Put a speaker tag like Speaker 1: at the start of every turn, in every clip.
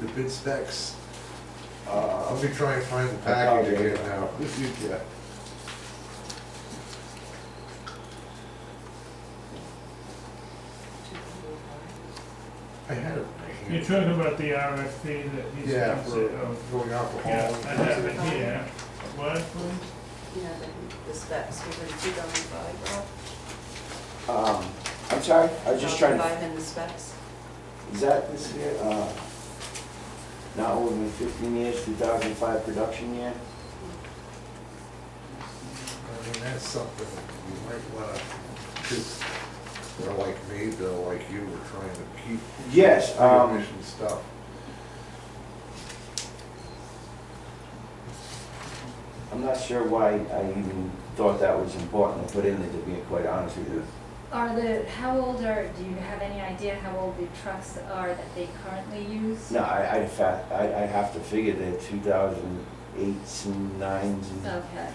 Speaker 1: the bid specs.
Speaker 2: Let
Speaker 1: Uh,
Speaker 2: me try and find the package again now.
Speaker 1: If you can.
Speaker 2: I had it.
Speaker 3: You're talking about the RFP that he's,
Speaker 2: Yeah,
Speaker 3: he's,
Speaker 2: for
Speaker 3: oh,
Speaker 2: going
Speaker 3: yeah,
Speaker 2: alcohol.
Speaker 3: I have it here. What, please?
Speaker 4: Yeah, the, the specs, we were in two thousand five, Rob.
Speaker 5: Um, I'm sorry, I was just trying to,
Speaker 4: Five in the specs.
Speaker 5: is that this year, uh, not older than fifteen years, two thousand five production year?
Speaker 2: I mean, that's something you might wanna, because they're like me, they're like you, we're trying to keep
Speaker 5: Yes, um,
Speaker 2: pre-mission stuff.
Speaker 5: I'm not sure why I even thought that was important to put in there, to be quite honest with you.
Speaker 6: Are the, how old are, do you have any idea how old the trucks are that they currently use?
Speaker 5: No, I, I, fa- I, I have to figure that two thousand eights and nines and,
Speaker 6: Okay,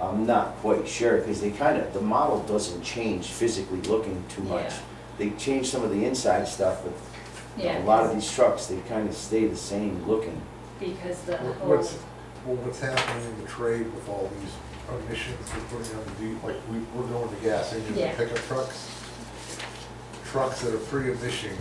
Speaker 5: I'm not quite sure, because they kind of, the model doesn't change physically looking too much.
Speaker 6: Yeah.
Speaker 5: They change some of the inside stuff, but
Speaker 6: yeah.
Speaker 5: A lot of these trucks, they kind of stay the same looking.
Speaker 6: Because the
Speaker 2: What-
Speaker 6: whole,
Speaker 2: What's, well, what's happening in the trade with all these emissions we're putting on the, deep? like, we, we're going to gas engines and
Speaker 6: Yeah.
Speaker 2: pickup trucks. Trucks that are pre-emission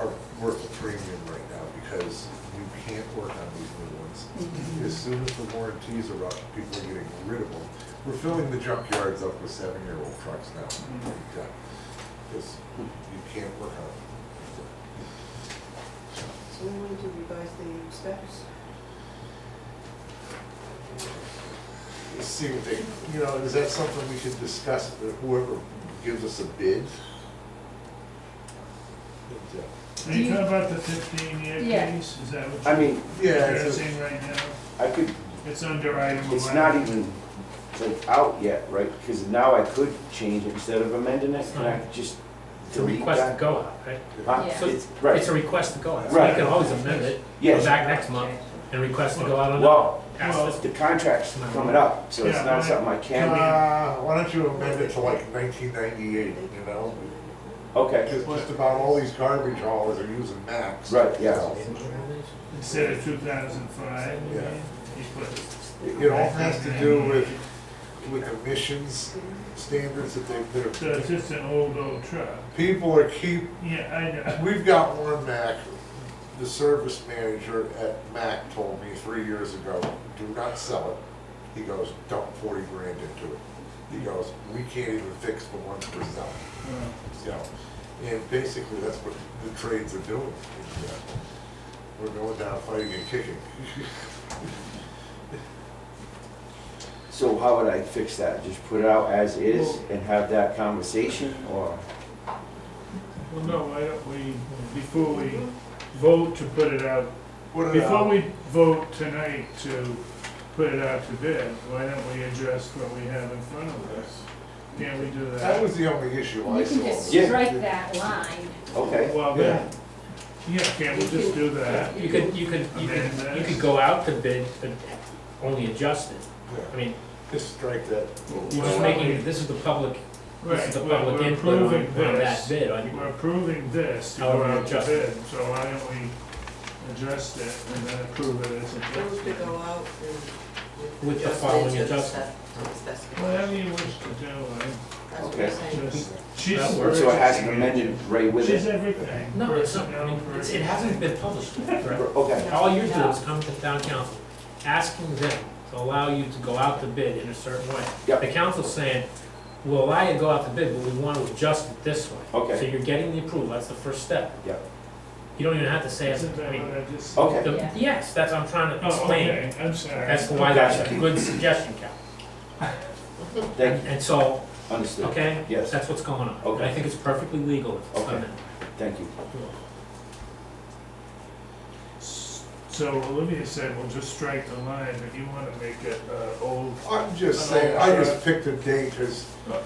Speaker 2: are worth a premium right now because you can't work on these new ones.
Speaker 6: Mm-hmm.
Speaker 2: As soon as the warranties are up, people are getting rid of them. We're filling the junkyards up with seven-year-old trucks now. Because you can't work on them.
Speaker 4: So we need to revise the specs.
Speaker 2: see what they, you know, is that something we should discuss, that whoever gives us a bid? But, uh,
Speaker 3: Are you talking about the fifteen year
Speaker 6: Yeah.
Speaker 3: piece? Is that what
Speaker 5: I mean,
Speaker 3: you're
Speaker 2: Yeah, it's, a-
Speaker 3: addressing right now?
Speaker 5: I could,
Speaker 3: It's under item eleven.
Speaker 5: it's not even like out yet, right? Because now I could change it instead of amending it, can I just
Speaker 7: It's a
Speaker 5: delete
Speaker 7: request to
Speaker 5: that?
Speaker 7: go out, right?
Speaker 5: Huh?
Speaker 6: Yeah.
Speaker 7: So
Speaker 5: It's-
Speaker 7: It's
Speaker 5: Right,
Speaker 7: a request to go out, so
Speaker 5: Right.
Speaker 7: you can always amend it, go
Speaker 5: yes,
Speaker 7: back next month and request to go out on that.
Speaker 5: well,
Speaker 7: Ask this-
Speaker 5: the contract's coming up, so it's
Speaker 3: Yeah,
Speaker 5: not
Speaker 3: but-
Speaker 5: something I can,
Speaker 2: uh, why don't you amend it to like nineteen ninety-eight, you know?
Speaker 5: okay,
Speaker 2: Because just about all these garbage haulers are using max.
Speaker 5: right, yeah.
Speaker 3: Instead of two thousand five, you
Speaker 2: Yeah.
Speaker 3: mean? You put-
Speaker 2: It it all has to do with, with emissions standards that they,
Speaker 3: So it's
Speaker 2: that are,
Speaker 3: just an old, old truck.
Speaker 2: people are keep,
Speaker 3: Yeah, I know.
Speaker 2: We've got one Mac, the service manager at Mac told me three years ago, do not sell it. He goes, dump forty grand into it. He goes, we can't even fix the ones we're selling,
Speaker 3: Uh,
Speaker 2: you know? And basically, that's what the trades are doing. is, uh, We're going down fighting and kicking.
Speaker 5: So how would I fix that? Just put it out as is and have that conversation, or?
Speaker 3: Well, no, why don't we, before we vote to put it out,
Speaker 2: What uh, an
Speaker 3: before
Speaker 2: hour.
Speaker 3: we vote tonight to put it out to bid, why don't we address what we have in front of us? Can't we do
Speaker 2: That
Speaker 3: that?
Speaker 2: was the only issue I
Speaker 6: you can
Speaker 2: saw.
Speaker 6: just
Speaker 5: Yeah.
Speaker 6: strike that line.
Speaker 5: Okay.
Speaker 3: Well, then, yeah, can't we just do that?
Speaker 7: You could, you could, you could, you could go out to bid, but only adjust it. I
Speaker 2: Yeah,
Speaker 7: mean,
Speaker 2: Just strike that.
Speaker 7: you're just making, this is the public, this
Speaker 3: Right,
Speaker 7: is the
Speaker 3: we're
Speaker 7: public
Speaker 3: we're
Speaker 7: input on
Speaker 3: approving
Speaker 7: on that
Speaker 3: this,
Speaker 7: bid,
Speaker 3: we're
Speaker 7: on,
Speaker 3: approving this to
Speaker 7: How
Speaker 3: go
Speaker 7: we
Speaker 3: out to
Speaker 7: adjust it.
Speaker 3: bid, so why don't we address it and then approve it
Speaker 4: Those
Speaker 3: as
Speaker 4: to
Speaker 3: adjusted?
Speaker 4: go out and.
Speaker 7: With the
Speaker 4: adjust it
Speaker 7: following
Speaker 4: to the
Speaker 7: adjustment.
Speaker 4: spec- to the specification.
Speaker 3: Whatever you wish to do,
Speaker 4: That's what I'm
Speaker 5: Okay.
Speaker 3: I
Speaker 4: saying.
Speaker 3: just, she's.
Speaker 7: That
Speaker 5: So it has to amend right with
Speaker 3: She's
Speaker 5: it?
Speaker 3: everything.
Speaker 7: no, it's not, I mean,
Speaker 3: Personnel,
Speaker 7: it's, it hasn't been published yet, right?
Speaker 5: Okay.
Speaker 7: All you do is come to town council, asking them to allow you to go out to bid in a certain way.
Speaker 5: Yep.
Speaker 7: The council's saying, we'll allow you to go out to bid, but we want to adjust it this way.
Speaker 5: Okay.
Speaker 7: So you're getting the approval, that's the first step.
Speaker 5: Yep.
Speaker 7: You don't even have to say,
Speaker 3: Isn't
Speaker 7: it. I
Speaker 3: that
Speaker 7: mean,
Speaker 3: what I just?
Speaker 5: Okay.
Speaker 7: the-
Speaker 6: Yeah.
Speaker 7: yes, that's what I'm trying to
Speaker 3: Oh,
Speaker 7: explain.
Speaker 3: okay, I'm sorry.
Speaker 7: That's why that's a good suggestion, Cal.
Speaker 5: Thank
Speaker 7: And so,
Speaker 5: you, understood.
Speaker 7: okay?
Speaker 5: Yes.
Speaker 7: That's what's going on. And
Speaker 5: Okay.
Speaker 7: I think it's perfectly legal if it's done
Speaker 5: Okay. Thank you.
Speaker 7: that way.
Speaker 3: So Olivia said, we'll just strike the line, but you wanna make it, uh, old.
Speaker 2: I'm just saying, I just picked a date because the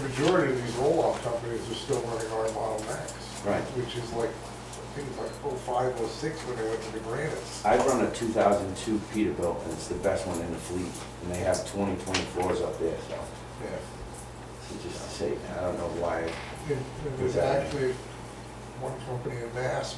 Speaker 2: majority of these roll-off companies are still running our Model Max.
Speaker 5: Right.
Speaker 2: Which is like, I think it's like oh five, oh six when they went to the Granites.
Speaker 5: I run a 2002 Peterbilt, and it's the best one in the fleet, and they have 20, 24s up there, so,
Speaker 2: Yeah.
Speaker 5: so just to say, I don't know why.
Speaker 2: And and there's actually, one company in Mass,